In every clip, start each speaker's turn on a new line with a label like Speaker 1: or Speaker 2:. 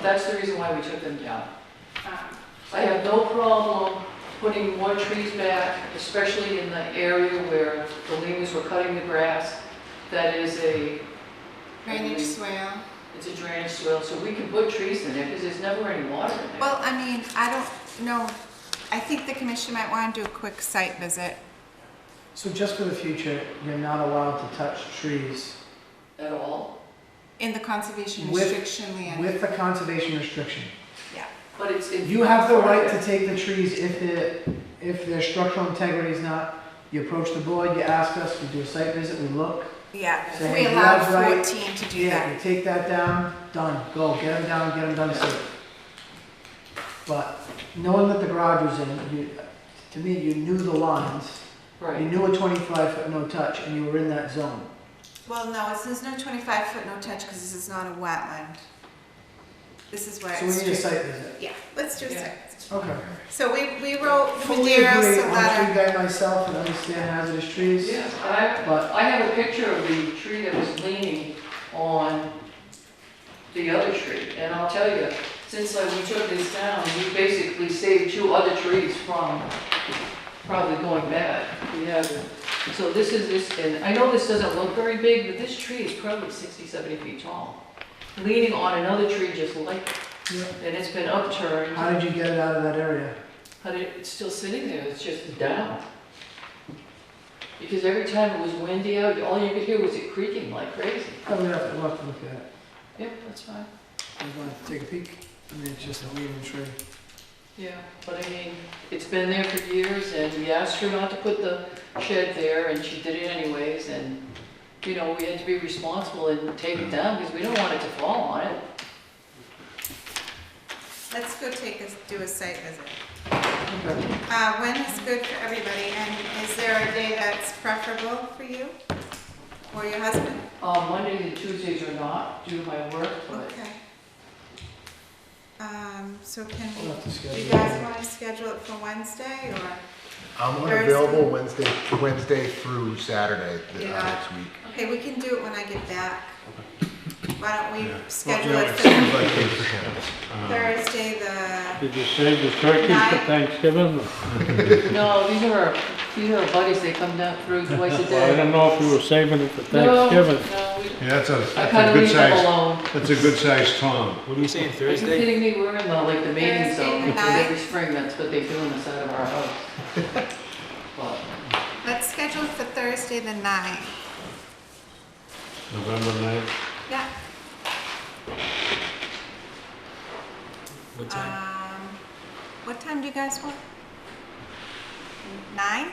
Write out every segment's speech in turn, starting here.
Speaker 1: that's the reason why we took them down.
Speaker 2: Um,
Speaker 1: I have no problem putting more trees back, especially in the area where the leaves were cutting the grass. That is a,
Speaker 3: drainage swale.
Speaker 1: it's a drainage swale, so we can put trees in there because there's never any water in there.
Speaker 3: Well, I mean, I don't know, I think the commission might want to do a quick site visit.
Speaker 4: So just for the future, you're not allowed to touch trees
Speaker 1: At all.
Speaker 3: In the conservation
Speaker 4: With-
Speaker 3: restriction land,
Speaker 4: with the conservation restriction.
Speaker 1: But it's. in-
Speaker 4: You have the right to take the trees if the, if their structural integrity is not, you approach the board, you ask us, we do a site visit, we look. So
Speaker 3: yeah, we
Speaker 4: you
Speaker 3: allowed
Speaker 4: have right-
Speaker 3: fourteen to do
Speaker 4: Yeah, you
Speaker 3: that.
Speaker 4: take that down, done, go, get them down, get them done safe. But knowing that the garage was in, you, to me, you knew the lines, you
Speaker 1: Right,
Speaker 4: knew a twenty-five foot no touch, and you were in that zone.
Speaker 3: Well, no, it says no twenty-five foot no touch, because this is not a wetland. This is where
Speaker 4: So we
Speaker 3: it's.
Speaker 4: need a
Speaker 3: strict-
Speaker 4: site visit.
Speaker 3: Yeah, let's do a
Speaker 1: Yeah.
Speaker 3: site.
Speaker 4: Okay.
Speaker 3: So we, we wrote the
Speaker 4: Fully agree, I'm
Speaker 3: Maderos a
Speaker 4: a tree
Speaker 3: letter.
Speaker 4: guy myself and understand hazardous trees.
Speaker 1: yeah, and
Speaker 4: But-
Speaker 1: I, I have a picture of the tree that was leaning on the other tree. And I'll tell you, since like we took this down, we basically saved two other trees from probably going bad. We have, so this is this, and I know this doesn't look very big, but this tree is probably 60, 70 feet tall, leaning on another tree just like it.
Speaker 4: Yeah.
Speaker 1: And it's been upturned.
Speaker 4: How did you get it out of that area?
Speaker 1: But it, it's still sitting there, it's just down. Because every time it was windy out, all you could hear was it creaking like crazy.
Speaker 4: Probably have to, we'll have to look at it.
Speaker 1: Yep, that's fine.
Speaker 4: I'm going to take a peek. I mean, it's just a leaning tree.
Speaker 1: Yeah, but I mean, it's been there for years, and we asked her not to put the shed there, and she did it anyways, and, you know, we had to be responsible and take it down, because we don't want it to fall on it.
Speaker 3: Let's go take a, do a site visit.
Speaker 4: Okay.
Speaker 3: Uh, when is good for everybody, and is there a day that's preferable for you or your husband?
Speaker 1: Uh, Mondays and Tuesdays are not due to my work, but
Speaker 3: Okay. Um, so can
Speaker 4: We'll have to
Speaker 3: we, you
Speaker 4: schedule
Speaker 3: guys
Speaker 4: it.
Speaker 3: want to schedule it for Wednesday, or,
Speaker 5: I'm
Speaker 3: Thursday.
Speaker 5: unavailable Wednesday, Wednesday through Saturday th-
Speaker 3: Yeah.
Speaker 5: uh, next week.
Speaker 3: okay, we can do it when I get back. Why don't we
Speaker 6: Yeah.
Speaker 3: schedule
Speaker 6: Well,
Speaker 3: it
Speaker 6: yeah,
Speaker 3: for
Speaker 6: Uh,
Speaker 3: Thursday, the,
Speaker 6: Did you save the turkey for
Speaker 3: Nine.
Speaker 6: Thanksgiving?
Speaker 1: no, these are, our- these are our buddies, they come down through twice a
Speaker 6: Well, I
Speaker 1: day.
Speaker 6: don't know if you were saving it for
Speaker 1: No,
Speaker 6: Thanksgiving.
Speaker 1: No, we
Speaker 6: Yeah, that's a,
Speaker 1: I kind of leave them alone.
Speaker 6: that's a good sized tom.
Speaker 7: What are we saying,
Speaker 1: Are you
Speaker 7: Thursday?
Speaker 1: kidding me? We're in the, like, the mating
Speaker 3: Thursday
Speaker 1: zone,
Speaker 3: night.
Speaker 1: because every spring, that's what they do on the side of our house. But,
Speaker 3: let's schedule it for Thursday the ninth.
Speaker 6: November ninth.
Speaker 3: Yeah.
Speaker 7: What time?
Speaker 3: Um, what time do you guys want? Nine?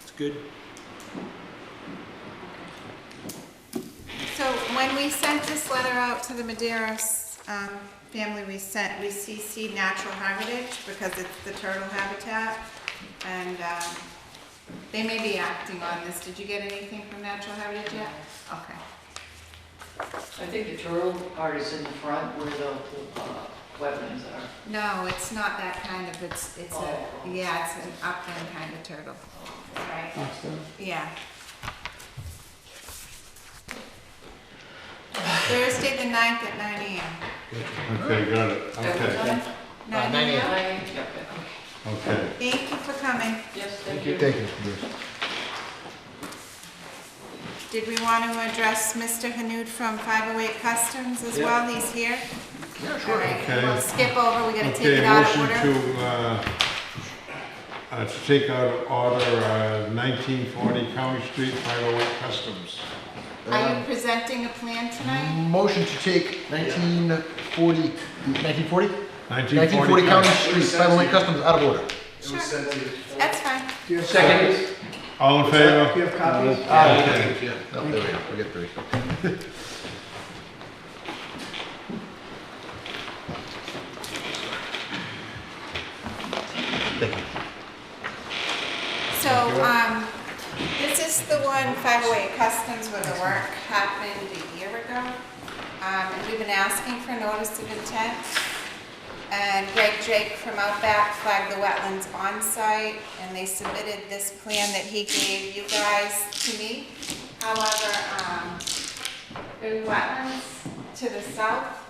Speaker 7: It's good.
Speaker 3: So when we sent this letter out to the Maderos um, family, we sent, we CC Natural Heritage because it's the turtle habitat. And um, they may be acting on this. Did you get anything from Natural Heritage yet? Okay.
Speaker 1: I think the turtle part is in the front where the, uh, wetlands are.
Speaker 3: No, it's not that kind of, it's, it's
Speaker 1: Oh.
Speaker 3: a, yeah, it's an upland kind of turtle, right?
Speaker 4: Awesome.
Speaker 3: Yeah. Thursday the ninth at nine AM.
Speaker 6: Okay, got it.
Speaker 1: At what
Speaker 6: Okay,
Speaker 1: time?
Speaker 3: Nine
Speaker 7: nine
Speaker 3: AM?
Speaker 1: Nine, yeah, okay.
Speaker 6: okay.
Speaker 3: Thank you for coming.
Speaker 1: Yes, thank you.
Speaker 5: Thank you. Bruce.
Speaker 3: Did we want to address Mr. Hanoud from 508 Customs as well? He's here? Yeah, sure. All right,
Speaker 6: Okay.
Speaker 3: we'll skip over, we gotta take
Speaker 6: Okay,
Speaker 3: it out of
Speaker 6: motion
Speaker 3: order.
Speaker 6: to, uh, uh, to take out of order, uh, nineteen forty County Street, five oh eight Customs.
Speaker 3: Are you presenting a plan tonight?
Speaker 5: Motion to take 1940, 1940?
Speaker 6: Nineteen
Speaker 5: 1940
Speaker 6: forty
Speaker 5: County Street, 508 Customs, out of order.
Speaker 3: Sure. That's fine.
Speaker 4: Do you have copies?
Speaker 6: All in
Speaker 4: Do
Speaker 6: favor?
Speaker 4: you have copies?
Speaker 5: Okay. Oh, there we go, we get three.
Speaker 3: So, um, this is the one, 508 Customs, where the work happened a year ago. Um, and we've been asking for notice of intent. And Greg Drake from Outback flagged the wetlands on site, and they submitted this plan that he gave you guys to me. However, um, the wetlands to the south